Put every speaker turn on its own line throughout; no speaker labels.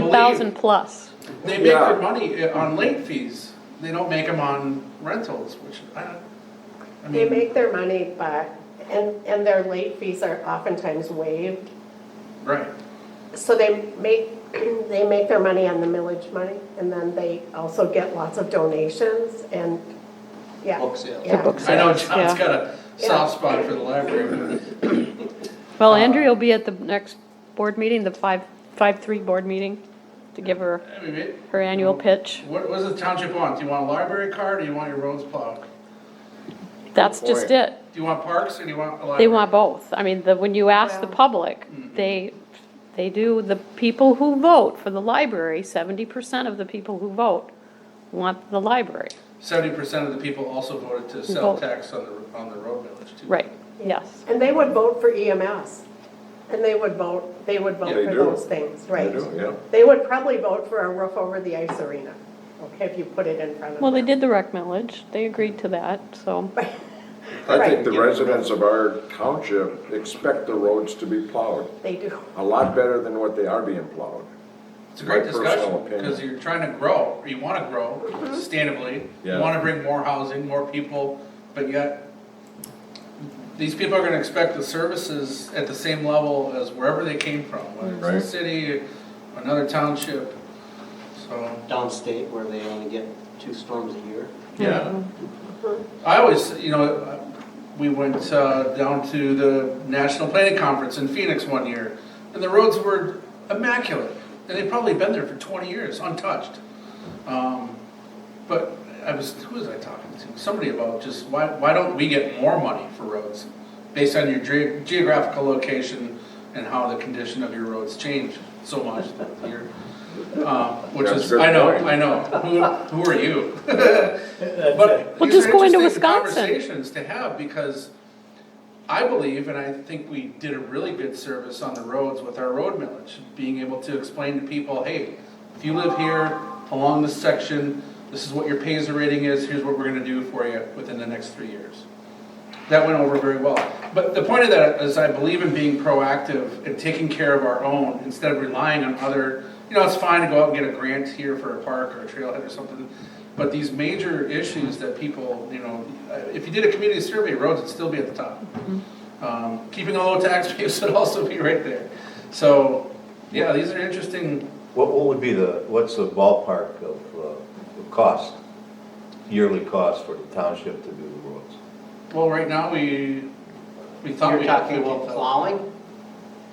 Hundred thousand plus.
They make their
Yeah.
money uh, on late fees, they don't make them on rentals, which I don't, I
They
mean,
make their money back, and, and their late fees are oftentimes waived.
right.
So they make, they make their money on the millage money, and then they also get lots of donations and, yeah.
Book sales.
Yeah.
I know
sales, yeah.
John's got a soft spot for the library.
Well, Andrea will be at the next board meeting, the five, five-three board meeting, to give her
I mean, it-
her annual pitch.
What, what does the township want? Do you want a library card, or do you want your roads plowed?
That's just it.
Do you want parks, or do you want a library?
They want both. I mean, the, when you ask the
Wow.
public, they, they do, the people who vote for the library, seventy percent of the people who vote want the library.
Seventy percent of the people also voted to sell
Vote.
tax on the, on the road village too.
Right, yes.
And they would vote for EMS, and they would vote, they would vote
They
for
do.
those things, right?
do, yeah.
They would probably vote for a roof over the ice arena, okay, if you put it in front of them.
Well, they did the rec millage. They agreed to that, so,
I think
Right.
the residents of our township expect the roads to be plowed,
They do.
a lot better than what they are being plowed.
It's a great
My personal
discussion,
opinion.
because you're trying to grow, or you wanna grow sustainably, you
Yeah.
wanna bring more housing, more people, but yet these people are gonna expect the services at the same level as wherever they came from, whether
Right.
it's the city, another township, so.
Downstate where they only get two storms a year.
Yeah. I always, you know, we went uh, down to the National Planning Conference in Phoenix one year, and the roads were immaculate, and they'd probably been there for twenty years, untouched. Um, But I was, who was I talking to? Somebody about just, why, why don't we get more money for roads? Based on your ge- geographical location and how the condition of your roads change so much that you're, um, which
That's
is,
a good
I know,
point.
I know, who, who are you? But
Well,
these
just
are
go into
interesting
Wisconsin.
Conversations to have, because I believe, and I think we did a really good service on the roads with our road millage, being able to explain to people, hey, if you live here, along this section, this is what your Paisley rating is, here's what we're gonna do for you within the next three years. That went over very well. But the point of that is I believe in being proactive and taking care of our own instead of relying on other, you know, it's fine to go out and get a grant here for a park or a trailhead or something. But these major issues that people, you know, if you did a community survey, roads would still be at the top. Um, Keeping a low tax base would also be right there. So, yeah, these are interesting,
What, what would be the, what's the ballpark of, uh, of cost, yearly cost for the township to do the roads?
well, right now, we, we thought
You're
we had
talking about
15,000.
plowing?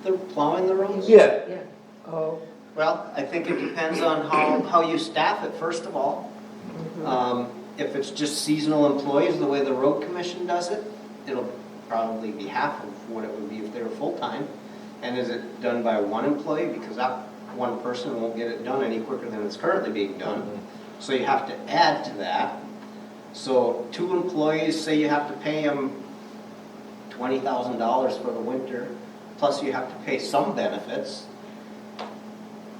The, plowing the roads?
Yeah,
Yeah, oh,
Well, I think it depends on how, how you staff it, first of all. Um, If it's just seasonal employees, the way the road commission does it, it'll probably be half of what it would be if they were full-time. And is it done by one employee? Because that one person won't get it done any quicker than it's currently being done. So you have to add to that. So two employees, say you have to pay them twenty thousand dollars for the winter, plus you have to pay some benefits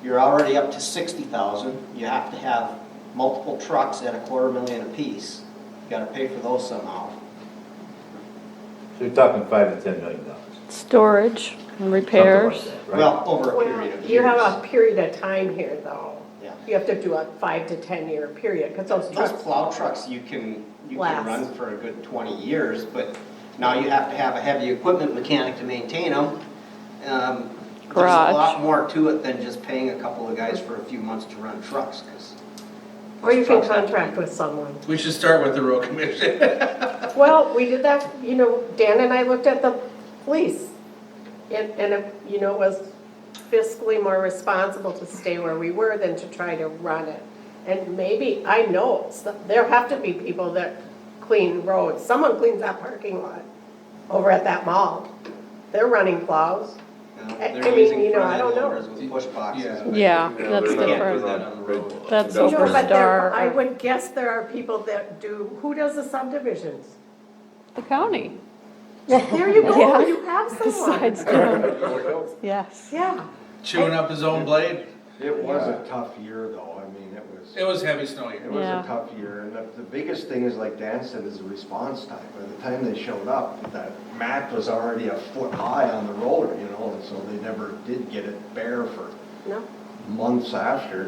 you're already up to sixty thousand, you have to have multiple trucks at a quarter million apiece, you gotta pay for those somehow.
so you're talking five to ten million dollars.
storage and repairs.
Something like that, right?
Well, over a period
well,
of years.
you have a period of time here, though.
Yeah.
You have to do a five to 10-year period, because those
Those
trucks,
plow trucks, you can, you can
Last.
run for a good twenty years, but now you have to have a heavy equipment mechanic to maintain them. Um, There's a
Garage.
lot more to it than just paying a couple of guys for a few months to run trucks, cause.
or you can
those trucks have to be-
contract with someone.
We should start with the road commission.
Well, we did that, you know, Dan and I looked at the police. And, and, it, you know, it was fiscally more responsible to stay where we were than to try to run it. And maybe, I know, s- there have to be people that clean roads. Someone cleans that parking lot over at that mall. They're running plows.
you know,
I- I
they're
mean,
using
you know,
front
I don't
end
know.
loaders with push boxes.
Yeah.
Yeah,
You know,
that's
they're not-
different.
they're not big
That's
industrial-
over
No, but there,
Overstar.
I would guess there are people that do, who does the subdivisions?
The county,
There you
Yeah.
go, you have someone.
besides Joan. Yes.
Yeah.
Chewing up his own blade.
It was a tough year though, I mean, it was,
It
it
was heavy snow year.
was
Yeah.
a tough year, and the, the biggest thing is, like Dan said, is the response time. By the time they showed up, that mat was already a foot high on the roller, you know, and so they never did get it bare for
No,
months after,